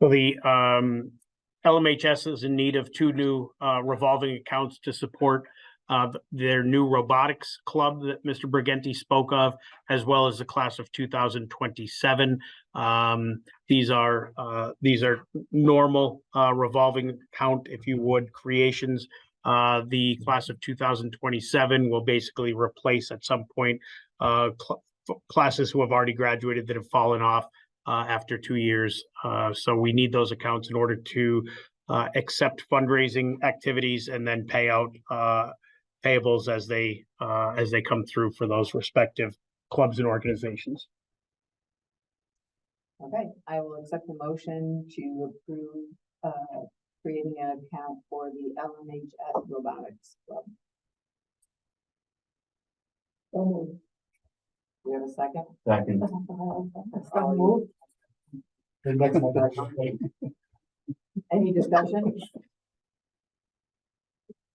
Well, the um LMHS is in need of two new uh revolving accounts to support uh their new robotics club that Mr. Briganti spoke of, as well as the class of two thousand twenty-seven. Um, these are uh, these are normal uh revolving account, if you would, creations. Uh, the class of two thousand twenty-seven will basically replace at some point uh cl- classes who have already graduated that have fallen off uh, after two years. Uh, so we need those accounts in order to uh, accept fundraising activities and then pay out uh, payables as they uh, as they come through for those respective clubs and organizations. Okay, I will accept the motion to approve, uh, creating an account for the LMHS Robotics Club. So moved. Do we have a second? Second. So moved. Any discussion?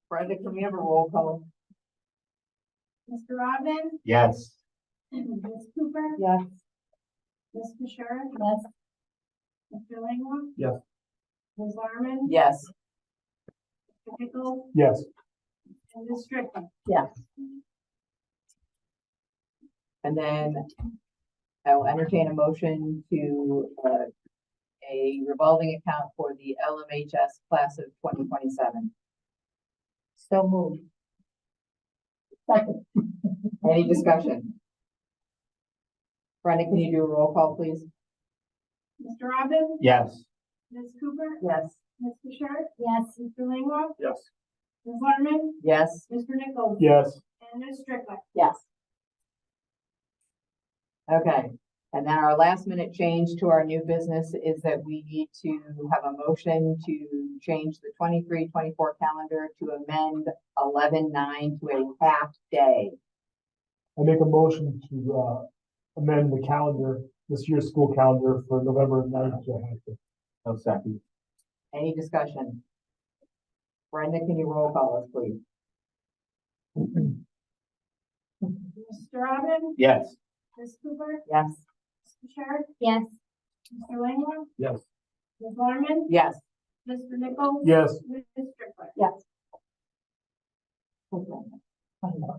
Brenda, can we have a roll call? Mr. Robin? Yes. Ms. Cooper? Yes. Ms. Fisher? Yes. Mr. Langwell? Yes. Ms. Larmen? Yes. Mr. Pickles? Yes. And Ms. Strickland? Yes. And then I will entertain a motion to, uh, a revolving account for the LMHS class of twenty twenty-seven. So moved. Second. Any discussion? Brenda, can you do a roll call, please? Mr. Robin? Yes. Ms. Cooper? Yes. Ms. Fisher? Yes. Mr. Langwell? Yes. Ms. Larmen? Yes. Mr. Nichols? Yes. And Ms. Strickland? Yes. Okay, and then our last minute change to our new business is that we need to have a motion to change the 23-24 calendar to amend 11-9 to a half day. I make a motion to, uh, amend the calendar, this year's school calendar for November ninth to half day. No second. Any discussion? Brenda, can you roll call us, please? Mr. Robin? Yes. Ms. Cooper? Yes. Ms. Fisher? Yes, Mr. Langwell? Yes. Ms. Larmen? Yes. Mr. Nichols? Yes, Ms. Strickland? Yes. We're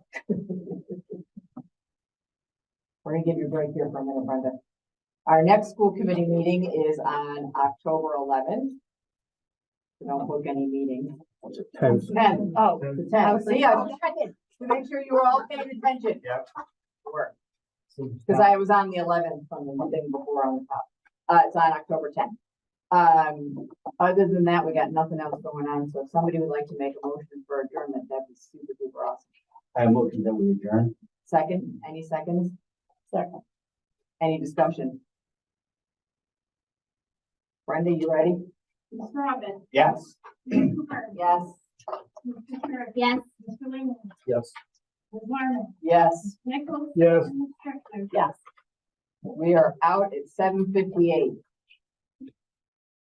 gonna give you a break here for a minute, Brenda. Our next school committee meeting is on October eleventh. So Don't book any meetings. Ten, oh, the tenth. See, I was oh. checking to make sure you were all paying attention. Yep. Work. so Because I was on the eleventh from the thing before on the top. Uh, it's on October tenth. Um, other than that, we got nothing else going on, so if somebody would like to make a motion for adjournment, that'd be super duper awesome. I motion that we adjourn. Second, any seconds? Second. Any discussion? Brenda, you ready? Mr. Robin? Yes. Ms. Cooper? Yes. Ms. Fisher? yes. Mr. Langwell? Yes. Ms. Larmen? Yes, Nichols? Yes. And Ms. Strickland? yes. We are out at seven fifty-eight.